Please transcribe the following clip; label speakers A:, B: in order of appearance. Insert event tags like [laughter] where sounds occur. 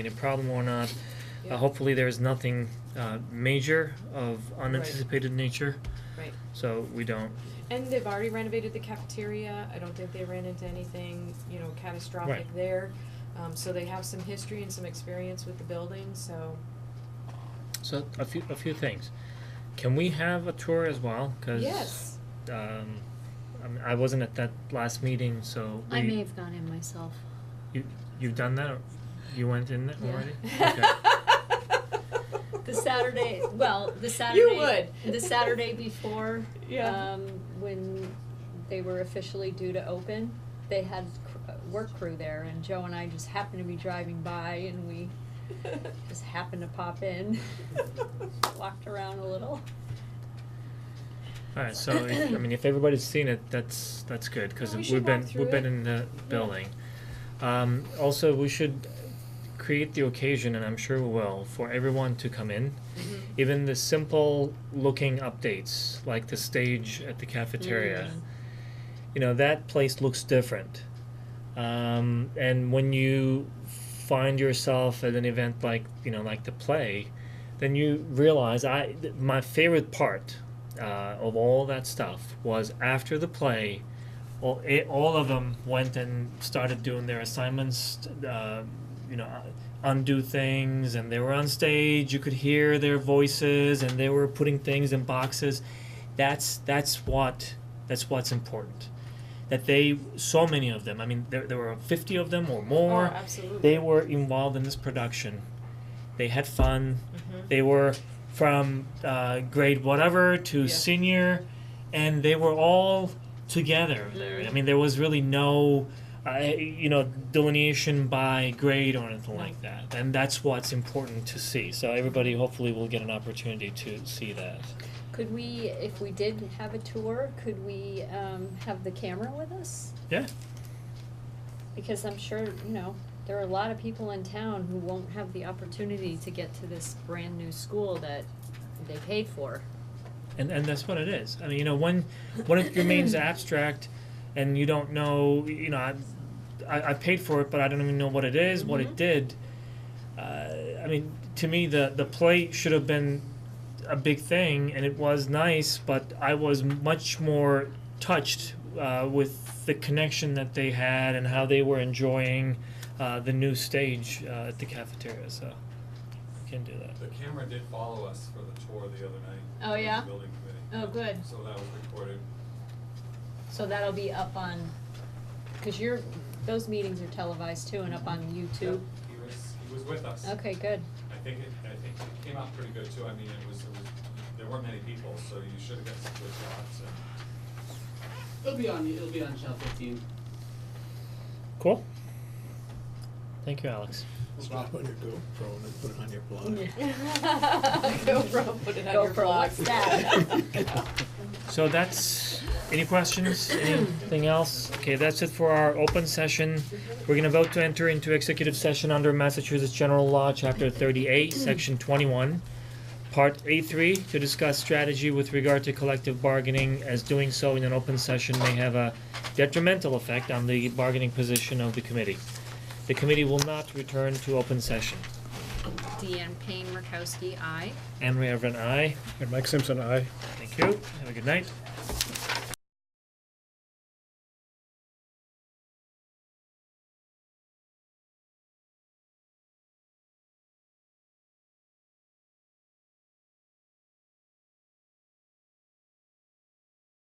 A: a problem or not. Uh, hopefully, there is nothing uh, major of unanticipated nature,
B: Right,
A: so we don't.
B: and they've already renovated the cafeteria, I don't think they ran into anything, you know, catastrophic
A: Right.
B: there. Um, so they have some history and some experience with the building, so,
A: So a few a few things. Can we have a tour as well? Because
B: yes,
A: um, I, mean, I wasn't at that last meeting, so we,
C: I may have gone in myself.
A: you you've done that. Or you went in there
C: Yeah. [laughs]
A: already.
B: [laughs]
C: The Saturday, well,
B: [laughs]
C: the Saturday.
B: would. [laughs]
C: The Saturday before.
B: Yeah.
C: Um, when they were officially due to open, they had cr- uh, work crew there and Joe and I just happened to be driving by and we just happened to pop in, [laughs] walked around a little.
A: All right. So if, I mean, if everybody's seen it, that's that's good because
B: Yeah, we should
A: have been
B: walk through
A: we've been
B: it.
A: in the building. Um, also, we should create the occasion, and I'm sure we will, for everyone to come in.
B: Mm-hmm.
A: Even the simple looking updates, like the stage at the cafeteria,
B: Mm-hmm.
A: you know that place looks different. Um, and when you find yourself at an event like you know like the play, then you realize I th- my favorite part uh, of all that stuff was after the play, all it, all of them went and started doing their assignments, uh, you know, undo things, and they were on stage. You could hear their voices, and they were putting things in boxes. That's that's what that's what's important. That they so many of them. I mean, there there were fifty of them or
B: Oh,
A: more
B: absolutely, [laughs]
C: [laughs]
A: they were involved in this production. They had fun. They were from uh, grade whatever to
B: Yeah.
A: senior, and they were all together there. I mean, there was really no, uh, you know, delineation by grade or anything like that. And that's what's important to see. So everybody hopefully will get an opportunity to see that.
C: Could we, if we did have a tour, could we, um, have the camera with us?
A: Yeah.
C: Because I'm sure, you know, there are a lot of people in town who won't have the opportunity to get to this brand new school that they paid for.
A: and and that's what it is. I mean, you know, when when it remains abstract, and you don't know, you know, I, I, I paid for it, but I don't even know what it is, what it did. Uh, I mean, to me, the the play should have been a big thing, and it was nice, but I was much more touched uh, with the connection that they had and how they were enjoying uh, the new stage uh, at the cafeteria. So, we can do that.
D: The camera did follow us for the tour the other night.
C: Oh,
D: of the
C: yeah?
D: Building committee.
C: Oh, good.
D: So that was recorded.
C: So that'll be up on, cause your, those meetings are televised too and up on YouTube.
D: Yep, He was, he was with us.
C: Okay, good.
D: I think it, I think it came out pretty good too. I mean, it was, it was, there weren't many people, so you should have got some good shots and.
E: It'll be on. It'll be on channel fifteen.
A: Cool. Thank you, Alex.
F: Strap on your GoPro and then put it on your blog.
B: GoPro, put it on your
C: GoPro,
B: blog.
C: what's that?
A: So that's, any questions, anything else? Okay, that's it for our open session. We're gonna vote to enter into executive session under Massachusetts General Law, Chapter thirty-eight, Section twenty-one, Part A three, to discuss strategy with regard to collective bargaining, as doing so in an open session may have a detrimental effect on the bargaining position of the committee. The committee will not return to open session.
C: Deanne Payne Murkowski, I.
A: Anne Marie Everett, aye.
G: And Mike Simpson, aye.
A: Thank you. Have a good night.